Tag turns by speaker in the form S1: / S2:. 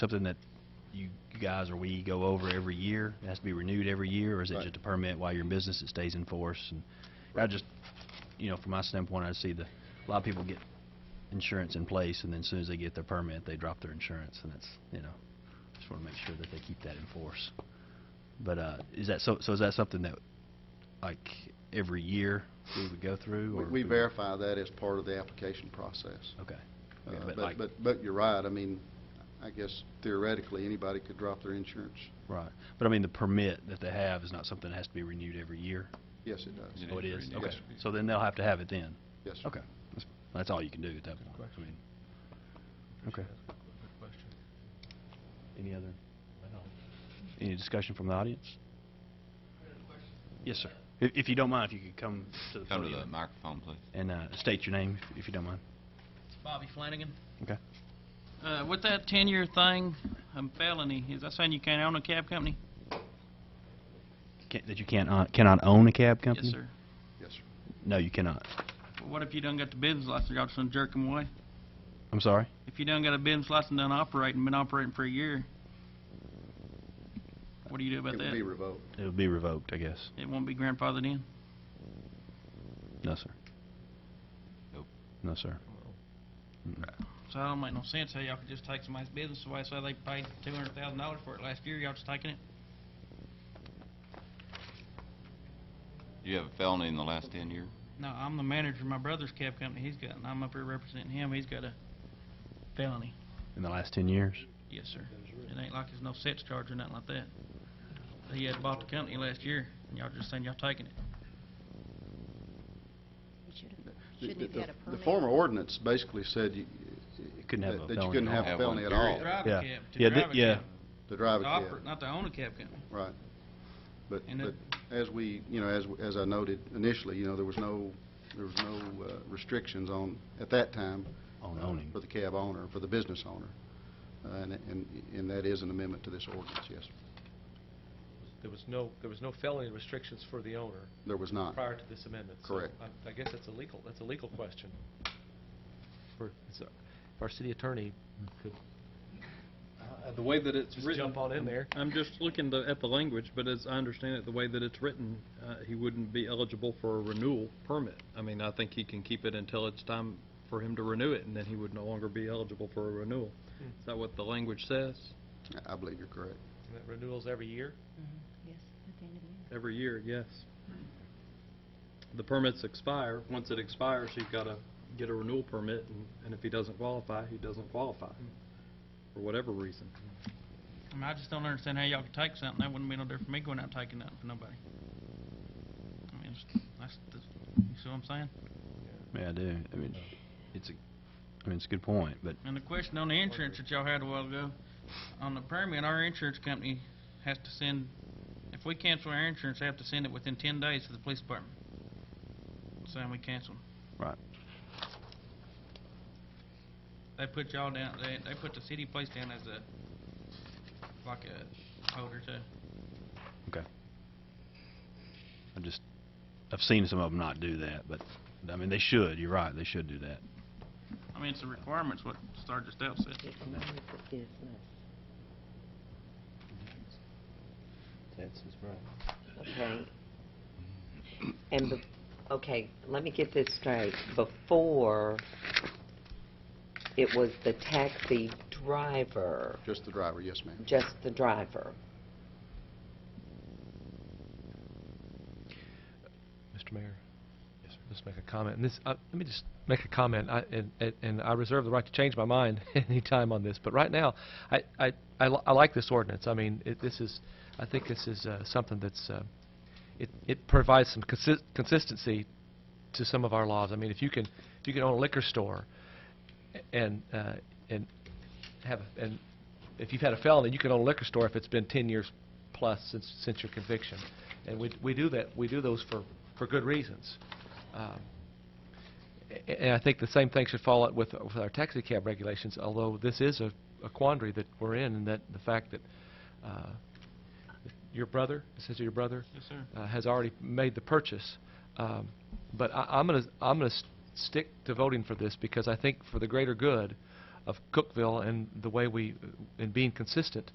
S1: something that you you guys or we go over every year? It has to be renewed every year, or is it
S2: Right.
S1: just a permit while you're in business, it stays in force? And I just, you know, from my standpoint, I see the, a lot of people get insurance in place, and then as soon as they get their permit, they drop their insurance, and it's, you know, just want to make sure that they keep that in force. But, uh, is that, so, so is that something that, like, every year we would go through?
S2: We-
S1: or
S2: We verify that as part of the application process.
S1: Okay.
S2: Uh,
S1: Yeah, But
S2: But,
S1: like,
S2: but, but you're right, I mean, I guess theoretically, anybody could drop their insurance.
S1: right. But I mean, the permit that they have is not something that has to be renewed every year?
S2: Yes, it does.
S1: Oh, it is?
S2: Yes,
S1: Okay.
S2: sir.
S1: So then they'll have to have it then?
S2: Yes, sir.
S1: Okay. That's- That's all you can do at that point. I mean, Okay. Any other, any discussion from the audience? Yes, sir. If, if you don't mind, if you could come to the
S3: Come to the
S1: podium
S3: microphone, please.
S1: and uh, state your name, if- if you don't mind.
S4: Bobby Flanagan.
S1: Okay.
S4: Uh, with that ten-year thing, um, felony, is that saying you can't own a cab company?
S1: Can't- That you can't, uh, cannot own a cab company?
S4: Yes, sir.
S2: Yes, sir.
S1: No, you cannot.
S4: Well, what if you done got the business license, y'all just gonna jerk them away?
S1: I'm sorry?
S4: If you done got a business license, done operating, been operating for a year, what do you do
S2: It
S4: about
S2: would be
S4: that?
S2: revoked.
S1: It would be revoked, I guess.
S4: It won't be grandfathered in?
S1: No, sir.
S3: Nope.
S1: No, sir. Mm-mm.
S4: So that don't make no sense, how y'all could just take somebody's business away, so they paid two hundred thousand dollars for it last year, y'all just taking it?
S3: You have a felony in the last ten years?
S4: No, I'm the manager of my brother's cab company he's got, and I'm up here representing him, he's got a felony.
S1: In the last 10 years?
S4: Yes, sir. It ain't like there's no sets charge or nothing like that. He had bought the company last year, and y'all just saying y'all taking it.
S5: We should have,
S2: The-
S5: shouldn't have
S2: the-
S5: had a permit.
S2: The former ordinance basically said you...
S1: Couldn't have a
S2: that- That you
S1: felony
S2: couldn't
S1: at all.
S2: have a
S3: Have
S2: felony
S3: one,
S2: at all,
S3: period.
S4: Drive
S1: Yeah.
S4: a cab, to
S1: Yeah,
S4: drive a
S1: th- yeah.
S4: cab.
S2: to drive a
S4: To
S2: cab.
S4: operate, not to own a cab company.
S2: Right. But,
S4: And
S2: but
S4: it-
S2: as we, you know, as, as I noted initially, you know, there was no, there was no uh, restrictions on, at that time.
S1: On
S2: uh,
S1: owning.
S2: For the cab owner, for the business owner. Uh, And, and, and that is an amendment to this ordinance, yes.
S6: There was no, there was no felony restrictions for the owner
S2: There was not.
S6: prior to this amendment. So
S2: Correct.
S6: I- I guess that's a legal, that's a legal question. For, it's a- if our city attorney could
S7: Uh, The way that it's
S6: just
S7: written...
S6: jump on in there.
S7: I'm just looking the- at the language, but as I understand it, the way that it's written, uh, he wouldn't be eligible for a renewal permit. I mean, I think he can keep it until it's time for him to renew it, and then he would no longer be eligible for a renewal. Is that what the language says?
S2: I- I believe you're correct.
S6: and that renewals every year.
S5: Yes, at the end of the year.
S7: Every year, yes. The permits expire. Once it expires, he's got to get a renewal permit, and- and if he doesn't qualify, he doesn't qualify, for whatever reason.
S4: I mean, I just don't understand how y'all could take something, that wouldn't be no different from me going out and taking nothing for nobody. I mean, it's- that's, that's, you see what I'm saying?
S1: Yeah, I do. I mean, it's a, I mean, it's a good point, but
S4: And the question on the insurance that y'all had a while ago, on the permit, our insurance company has to send, if we cancel our insurance, they have to send it within ten days to the police department. Saying we cancel.
S1: Right.
S4: They put y'all down, they, they put the city place down as a, like a holder too.
S1: I just, I've seen some of them not do that, but, I mean, they should, you're right, they should do that.
S4: I mean, it's the requirements what Star just out said.
S1: That's right.
S8: Okay. And, bef- okay, let me get this straight. Before, it was the taxi driver,
S2: Just the driver, yes, ma'am.
S8: just the driver.
S6: Mr. Mayor? Yes, Just make a comment, and this, uh, let me just make a comment, I, and- and, and I reserve the right to change my mind any time on this, but right now, I, I, I li- I like this ordinance, I mean, it, this is, I think this is, uh, something that's, uh, it, it provides some consis- consistency to some of our laws, I mean, if you can, if you can own a liquor store, a- and, uh, and have, a- and if you've had a felony, you can own a liquor store if it's been ten years plus since, since your conviction, and we, we do that, we do those for, for good reasons. Um, a- a- And I think the same thing should follow it with, with our taxi cab regulations, although this is a a quandary that we're in, and that the fact that uh, your brother, it says your brother,
S4: Yes, sir.
S6: uh, has already made the purchase. Um, But I- I'm going to, I'm going to stick to voting for this because I think for the greater good of Cookville and the way we, and being consistent